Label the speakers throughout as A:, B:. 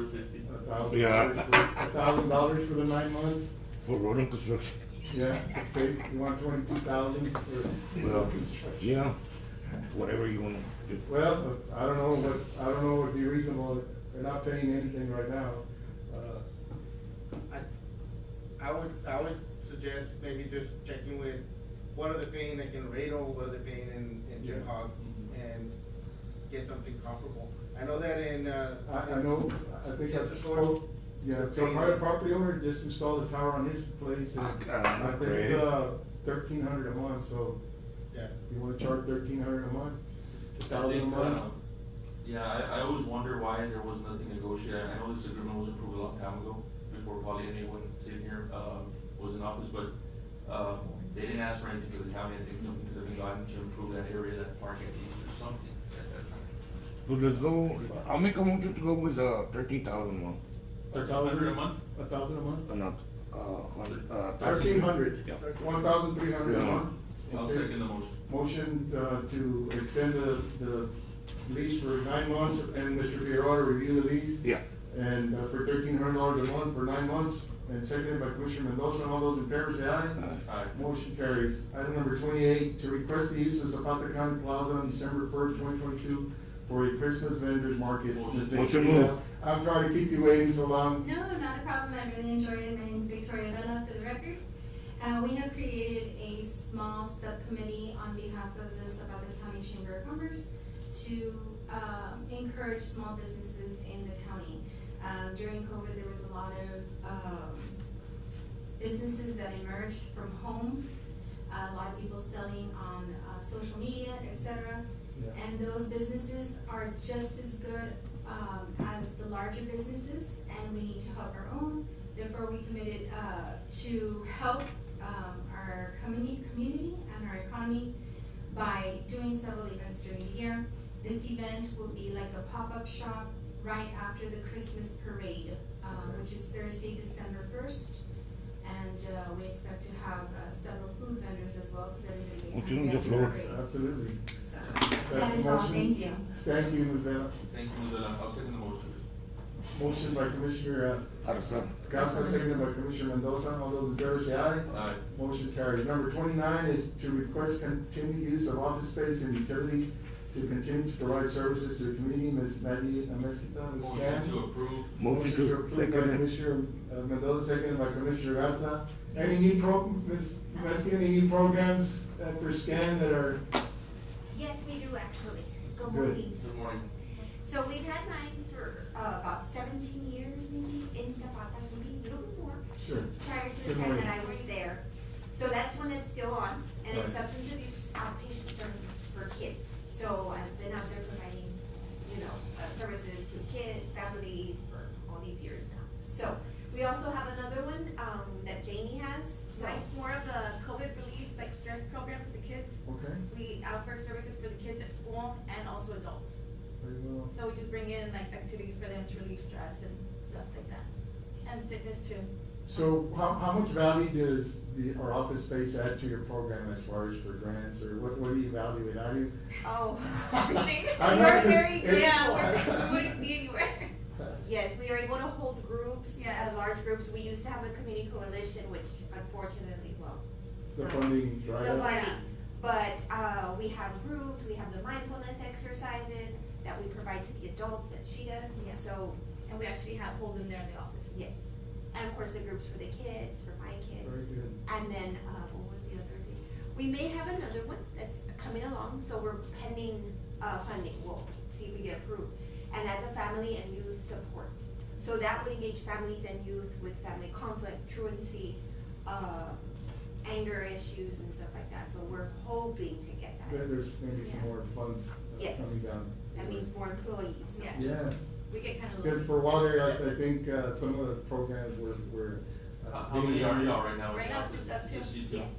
A: fifty.
B: A thousand
C: Yeah.
B: dollars for, a thousand dollars for the nine months?
C: For road and construction.
B: Yeah, okay, you want twenty-two thousand for
C: Well,
B: construction?
C: yeah, whatever you wanna do.
B: Well, I don't know what, I don't know what'd be reasonable, they're not paying anything right now. Uh,
D: I, I would, I would suggest maybe just checking with, what are they paying like in Laredo, what are they paying in, in Jim Hog?
B: Mm-hmm.
D: And get something comparable. I know that in, uh.
B: I, I know, I think I
D: Central Shores,
B: spoke, yeah, the prior property owner just installed a tower on his place,
C: Ah,
B: and
C: God,
B: I
C: great.
B: think, uh, thirteen hundred a month, so
D: Yeah,
B: you wanna charge thirteen hundred a month? A
A: I
B: thousand a
A: think, uh,
B: month?
A: Yeah, I, I always wonder why there was nothing negotiated. I know this agreement was approved a long time ago, before probably anyone sitting here, um, was in office, but, um, they didn't ask for anything for the county. I think something could have been gotten to improve that area, that park at least or something at that time.
C: So let's go, I'll make a motion to go with, uh, thirteen thousand one,
A: $1,300 a month?
B: A thousand a month?
C: uh, not, uh, hundred, uh.
B: Thirteen hundred.
C: Yeah.
B: One thousand three hundred a
C: Yeah.
B: month?
A: I'll
B: Okay.
A: second the motion.
B: Motion uh, to extend the, the lease for nine months, and Mr. Figueroa to review the lease.
C: Yeah,
B: And uh, for thirteen hundred dollars a month for nine months, and seconded by Commissioner Mendoza, all those in favor say aye.
C: Aye.
A: Aye.
B: Motion carries. Item number twenty-eight, to request the use of Zapata County Plaza on December first, twenty twenty-two for a Christmas vendors market.
A: Motion.
B: Ms.
C: Motion
B: Tequila,
C: moved.
B: I'm sorry to keep you waiting so long.
E: No, not a problem. I really enjoyed it. My name's Victoria Vela for the record. Uh, we have created a small subcommittee on behalf of the Sabata County Chamber of Commerce to, uh, encourage small businesses in the county. Uh, during COVID, there was a lot of, um, businesses that emerged from home. A lot of people selling on, uh, social media, et cetera.
B: Yeah.
E: And those businesses are just as good, um, as the larger businesses, and we need to help our own. Therefore, we committed, uh, to help, um, our community, community and our economy by doing several events during the year. This event will be like a pop-up shop right after the Christmas parade, uh, which is Thursday, December first. And, uh, we expect to have, uh, several food vendors as well, because everybody makes.
C: Motion on the
E: homemade
C: floor.
E: bread.
B: Absolutely.
E: That is all,
B: Motion.
E: thank you.
B: Thank you, Ms. Vela.
A: Thank you, Madela. I'll second the motion.
B: Motion by Commissioner uh,
C: Arsa.
B: Garza, seconded by Commissioner Mendoza, all those in favor say aye.
A: Aye.
B: Motion carries. Number twenty-nine is to request continued use of office space and utilities to continue to provide services to the community, Ms. Maddie uh, Mesquita, Ms.
A: Motion to
B: Chan.
A: approve.
C: Motion to
B: approve by
C: second it.
B: Commissioner uh, Mendoza, seconded by Commissioner Garza. Any new pro, Ms. Mesquita, any new programs uh, for SCAN that are,
F: Yes, we do actually.
B: Good.
F: Good morning.
A: Good morning.
F: So we've had mine for uh, about seventeen years maybe in Zapata, maybe a little bit more,
B: sure,
F: prior to the
B: Good
F: time
B: morning.
F: that I was there. So that's one that's still on, and it's
B: Right.
F: substance abuse outpatient services for kids. So I've been out there providing, you know, uh, services to kids, families for all these years now. So we also have another one um, that Janie has, so.
G: Mine's more of a COVID relief, like stress program for the kids.
B: okay,
G: We offer services for the kids at school and also adults.
B: very well.
G: So we just bring in like activities for them to relieve stress and stuff like that. And fitness too.
B: So how, how much value does the, our office space add to your program as far as for grants, or what, what do you evaluate, how do you?
F: Oh.
G: Everything.
B: I know
F: We're
B: it's-
F: very
B: it's-
F: good.
G: Yeah, we wouldn't be anywhere.
B: uh,
F: Yes, we are able to hold groups,
G: Yes.
F: uh, large groups. We used to have a community coalition, which unfortunately, well, um,
B: The funding dried
F: the
B: up?
F: funding. But, uh, we have groups, we have the mindfulness exercises that we provide to the adults that she does,
G: Yeah.
F: so,
G: And we actually have, hold them there in the office.
F: yes. And of course, the groups for the kids, for my
B: Very
F: kids.
B: good.
F: And then, uh, what was the other thing? We may have another one that's coming along, so we're pending, uh, funding, we'll see if we get approved. And that's a family and youth support. So that would engage families and youth with family conflict, truancy, uh, anger issues and stuff like that, so we're hoping to get
B: There-
F: that.
B: There's maybe some
F: Yeah.
B: more funds uh,
F: Yes.
B: coming down.
F: That means more employees. so-
G: Yeah.
B: Yes,
G: We get kind of.
B: because for water, I, I think, uh, some of the programs were, were. uh,
A: How how many are y'all right now? in
G: Right
A: the
G: now,
A: office?
G: just us two.
A: Just you two?
F: Yes,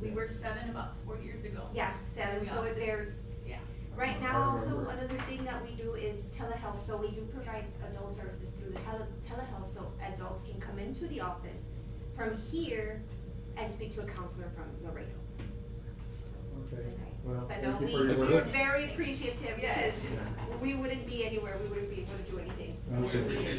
G: We were seven about four years ago.
F: yeah, seven,
G: We
F: so it
G: opted-
F: varies.
G: Yeah.
F: Right
B: I
F: now,
B: remember.
F: also, another thing that we do is telehealth, so we do provide adult services through the tele- telehealth, so adults can come into the office from here and speak to a counselor from Laredo.
B: Okay, well,
F: But no,
B: thank you
F: we,
B: for your
F: we're
B: work.
F: very appreciative,
G: Yes.
F: because we wouldn't be anywhere, we wouldn't be able to do anything.
A: We
B: Okay.
A: appreciate